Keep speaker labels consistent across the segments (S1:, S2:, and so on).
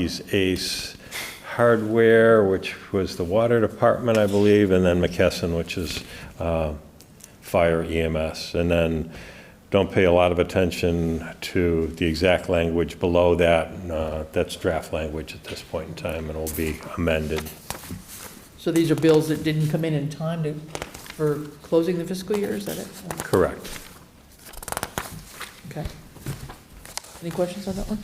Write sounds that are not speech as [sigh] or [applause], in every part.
S1: He's Ace Hardware, which was the water department, I believe, and then McKesson, which is uh, fire EMS. And then don't pay a lot of attention to the exact language below that. Uh, That's draft language at this point in time and will be amended.
S2: So these are bills that didn't come in in time to, for closing the fiscal year, is that it?
S1: Correct.
S2: Okay. Any questions on that one?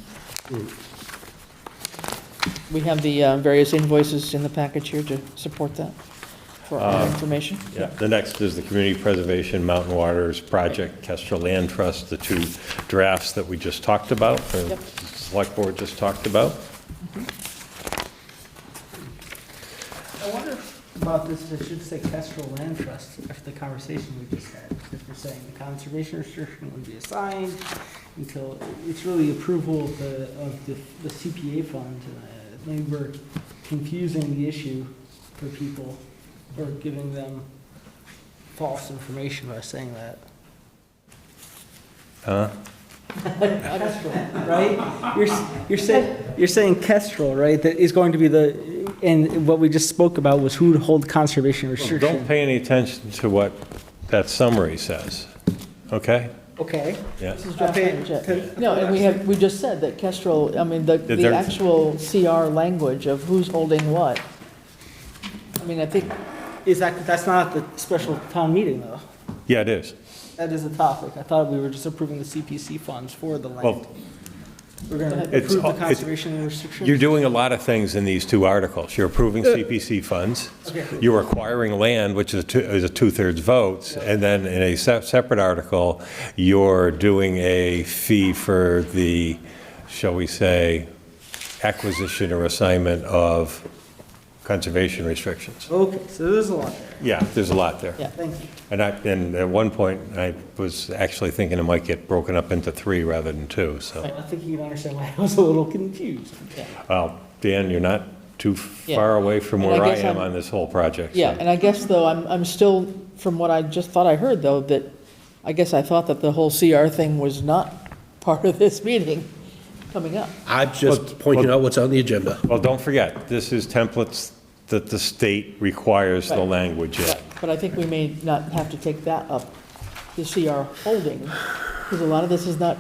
S2: We have the uh, various invoices in the package here to support that, for
S3: Uh,
S2: our information.
S1: Yeah, the next is the Community Preservation Mountain Waters Project, Kestrel Land Trust, the two drafts that we just talked about, the
S2: Yep.
S1: Select Board just talked about.
S3: I wonder if about this, if it should say Kestrel Land Trust, after the conversation we just had. If we're saying the conservation restriction would be assigned until, it's really approval of the, of the the CPA fund. Uh, Maybe we're confusing the issue for people, or giving them false information by saying that.
S1: Huh?
S3: [laughs] Kestrel, right? You're, s- you're saying, you're saying Kestrel, right, that is going to be the, and what we just spoke about was who would hold conservation restriction.
S1: Don't pay any attention to what that summary says, okay?
S3: Okay.
S1: Yeah.
S2: This is draft
S3: Okay,
S2: language, yeah.
S3: can-
S2: No, and we have, we just said that Kestrel, I mean, the, the
S1: there-
S2: actual CR language of who's holding what. I mean, I think,
S3: Is that, that's not the special town meeting, though?
S1: Yeah, it is.
S3: That is a topic. I thought we were just approving the CPC funds for the land.
S1: Well,
S3: We're going to
S1: It's
S3: approve
S1: all-
S3: the
S1: it's-
S3: conservation restriction?
S1: You're doing a lot of things in these two articles. You're approving CPC funds,
S3: Okay.
S1: you're acquiring land, which is a two- is a two-thirds votes, and then in a se- separate article, you're doing a fee for the, shall we say, acquisition or assignment of conservation restrictions.
S3: Okay, so there's a lot there.
S1: Yeah, there's a lot there.
S2: yeah.
S3: Thank you.
S1: And I, and at one point, I was actually thinking it might get broken up into three rather than two, so.
S3: I think you can understand why I was a little confused.
S1: Well, Dan, you're not too
S2: Yeah.
S1: far away from
S2: And I
S1: where I
S2: guess
S1: am
S2: I'm-
S1: on this whole project. so-
S2: Yeah, and I guess though, I'm, I'm still, from what I just thought I heard though, that, I guess I thought that the whole CR thing was not [laughs] part of this meeting coming up.
S4: I'm just pointing out what's on the agenda.
S1: Well, don't forget, this is templates that the state requires the
S2: Right.
S1: language in.
S2: But but I think we may not have to take that up, the CR holding, because a lot of this is not,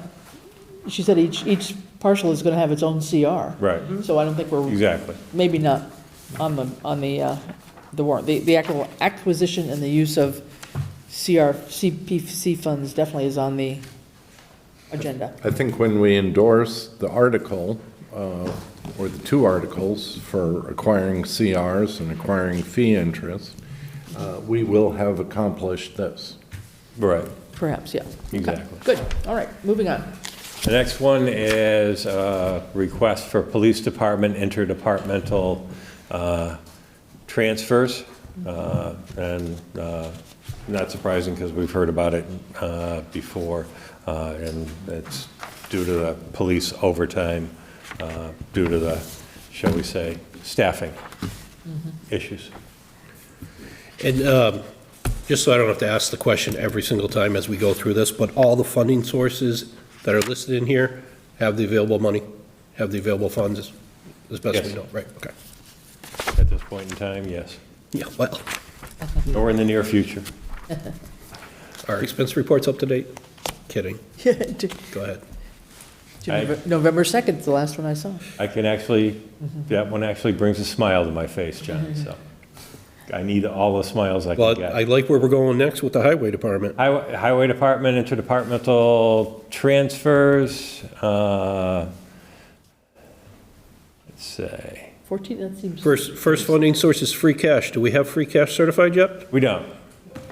S2: she said each, each parcel is going to have its own CR.
S1: Right,
S2: So I don't think we're,
S1: exactly.
S2: maybe not on the, on the, uh, the warrant. The, the actual acquisition and the use of CR, CPC funds definitely is on the agenda.
S5: I think when we endorse the article, uh, or the two articles for acquiring CRs and acquiring fee interest, uh, we will have accomplished this.
S1: Right.
S2: Perhaps, yeah. Okay.
S1: Exactly.
S2: Good, all right, moving on. [laughs]
S1: The next one is a request for police department interdepartmental uh, transfers. Uh, And uh, not surprising because we've heard about it uh, before. uh, And it's due to the police overtime, uh, due to the, shall we say, staffing issues.
S4: And um, just so I don't have to ask the question every single time as we go through this, but all the funding sources that are listed in here have the available money, have the available funds, as best we
S1: Yes.
S4: know, right? Okay.
S1: At this point in time, yes.
S4: Yeah, well,
S1: Or in the near future.
S4: our expense report's up to date? Kidding.
S2: To-
S4: Go ahead.
S2: to
S1: I-
S2: November- November 2nd, 's the last one I saw.
S1: I can actually, that one actually brings a smile to my face, John, so. I need all the smiles I can
S4: Well, I
S1: get.
S4: like where we're going next with the highway department.
S1: Highway Highway Department, interdepartmental transfers, uh, let's say,
S2: 14, that seems,
S4: First, first funding source is free cash. Do we have free cash certified yet?
S1: we don't.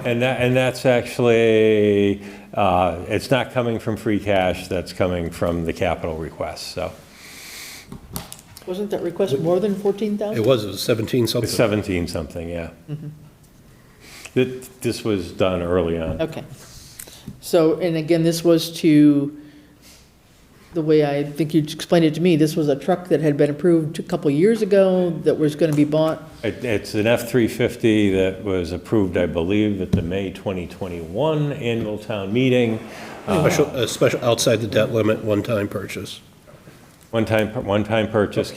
S1: And that, and that's actually, uh, it's not coming from free cash, that's coming from the capital request, so.
S2: wasn't that request more than
S4: It
S2: 14,000?
S4: was, it was 17
S1: It's
S4: something.
S1: 17-something, yeah. Th- This was done early on.
S2: Okay. So, and again, this was to, the way I think you explained it to me, this was a truck that had been approved a couple years ago that was going to be bought.
S1: It- It's an F-350 that was approved, I believe, at the May 2021 annual town meeting.
S4: Special, a special outside the debt limit, one-time purchase.
S1: One-time, one-time purchase,